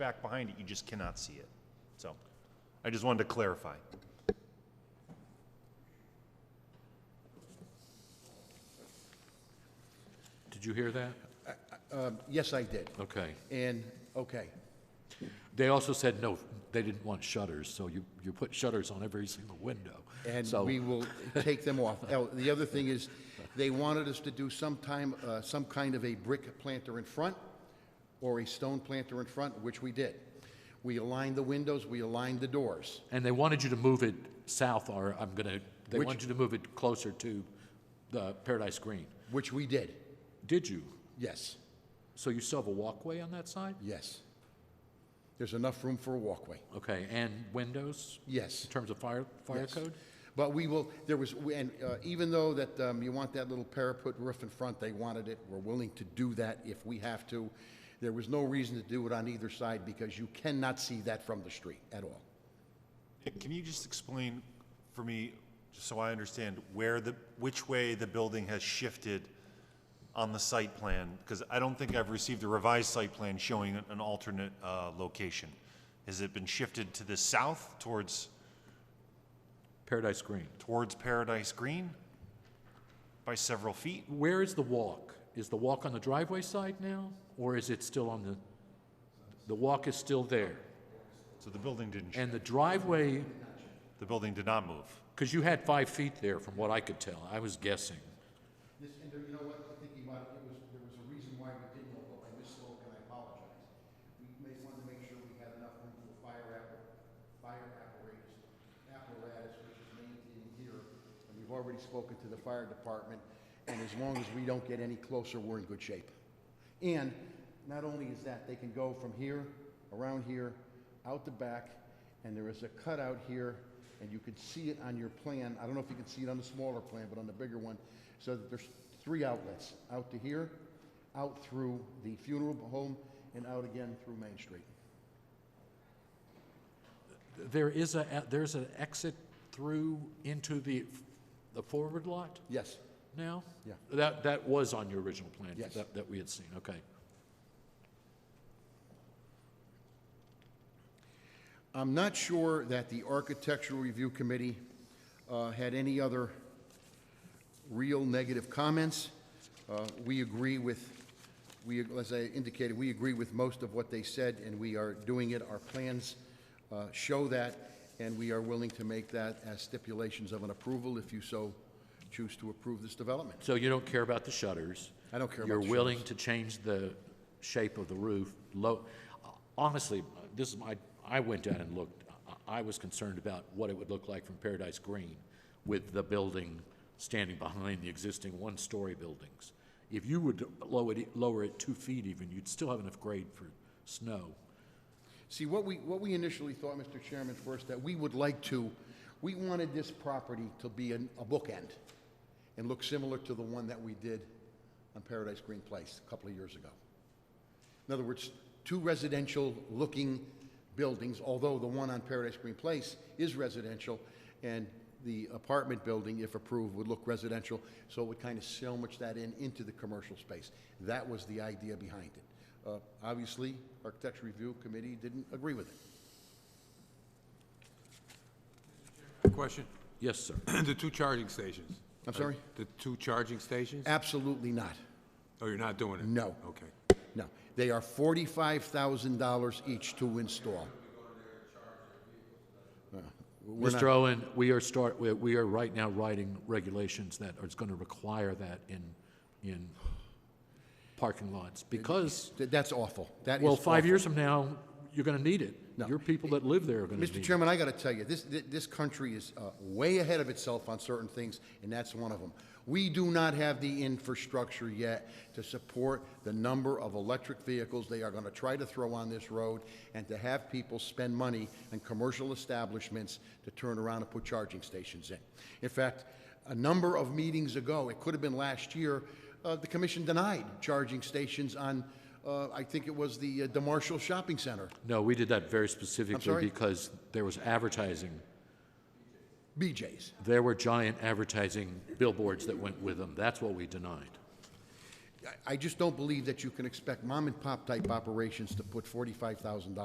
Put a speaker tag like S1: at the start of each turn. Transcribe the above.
S1: back behind it, you just cannot see it. So I just wanted to clarify.
S2: Did you hear that?
S3: Yes, I did.
S2: Okay.
S3: And, okay,
S2: They also said no, they didn't want shutters, so you, you put shutters on every single window.
S3: and
S2: So-
S3: we will take them off. Oh, The other thing is, they wanted us to do some time, uh, some kind of a brick planter in front or a stone planter in front, which we did. We aligned the windows, we aligned the doors.
S2: And they wanted you to move it south, or I'm gonna, they
S3: Which-
S2: wanted you to move it closer to the Paradise Green.
S3: Which we did,
S2: Did you?
S3: yes,
S2: So you still have a walkway on that side?
S3: yes. There's enough room for a walkway,
S2: Okay, and windows,
S3: yes.
S2: in terms of fire, fire
S3: yes.
S2: code?
S3: But we will, there was, and uh, even though that um, you want that little parapet roof in front, they wanted it, we're willing to do that if we have to. There was no reason to do it on either side because you cannot see that from the street at all.
S1: Can you just explain for me, just so I understand, where the, which way the building has shifted on the site plan? Because I don't think I've received a revised site plan showing an- an alternate uh, location. Has it been shifted to the south towards,
S2: Paradise Green.
S1: towards Paradise Green by several feet?
S2: Where is the walk? Is the walk on the driveway side now, or is it still on the, the walk is still there?
S1: So the building didn't, sh-
S2: And the driveway,
S1: the building did not move.
S2: because you had five feet there from what I could tell, I was guessing.
S3: This, and there, you know what, I think you might, it was, there was a reason why we didn't, although I misspoke and I apologize. We may want to make sure we had enough room for fire appar- fire apparatus, apparatus, which is maintained here. And we've already spoken to the fire department, and as long as we don't get any closer, we're in good shape. And not only is that, they can go from here, around here, out the back, and there is a cutout here, and you can see it on your plan. I don't know if you can see it on the smaller plan, but on the bigger one, so that there's three outlets, out to here, out through the funeral home, and out again through Main Street.
S2: There is a, there's an exit through into the, the forward lot
S3: Yes,
S2: now?
S3: Yeah.
S2: That, that was on your original plan?
S3: Yes.
S2: That, that we had seen, okay.
S3: I'm not sure that the Architectural Review Committee uh, had any other real negative comments. Uh, We agree with, we, as I indicated, we agree with most of what they said, and we are doing it. Our plans uh, show that, and we are willing to make that as stipulations of an approval if you so choose to approve this development.
S2: So you don't care about the shutters?
S3: I don't care about the
S2: You're willing to change the shape of the roof, low, honestly, this is my, I went down and looked, I, I was concerned about what it would look like from Paradise Green with the building standing behind the existing one-story buildings. If you would lower it, lower it two feet even, you'd still have enough grade for snow.
S3: See, what we, what we initially thought, Mr. Chairman, first, that we would like to, we wanted this property to be an- a bookend and look similar to the one that we did on Paradise Green Place a couple of years ago. In other words, two residential-looking buildings, although the one on Paradise Green Place is residential, and the apartment building, if approved, would look residential, so it would kind of sandwich that in into the commercial space. That was the idea behind it. Uh, Obviously, Architecture Review Committee didn't agree with it.
S4: Question,
S2: Yes, sir.
S4: the two charging stations.
S3: I'm sorry?
S4: The two charging stations?
S3: Absolutely not.
S4: Oh, you're not doing it?
S3: No.
S4: Okay.
S3: No. They are $45,000 each to install. We're not-
S2: Mr. Owen, we are start, we- we are right now writing regulations that are going to require that in, in parking lots, because,
S3: Th- That's awful. That is
S2: well, five
S3: awful.
S2: years from now, you're going to need it.
S3: No.
S2: Your people that live there are going to need it.
S3: Mr. Chairman, I got to tell you, this, thi- this country is uh, way ahead of itself on certain things, and that's one of them. We do not have the infrastructure yet to support the number of electric vehicles they are going to try to throw on this road and to have people spend money on commercial establishments to turn around and put charging stations in. In fact, a number of meetings ago, it could have been last year, uh, the commission denied charging stations on, uh, I think it was the uh, DeMarshall Shopping Center.
S2: No, we did that very specifically
S3: sorry?
S2: because there was advertising.
S3: BJ's.
S2: There were giant advertising billboards that went with them. That's what we denied.
S3: I- I just don't believe that you can expect mom-and-pop type operations to put $45,000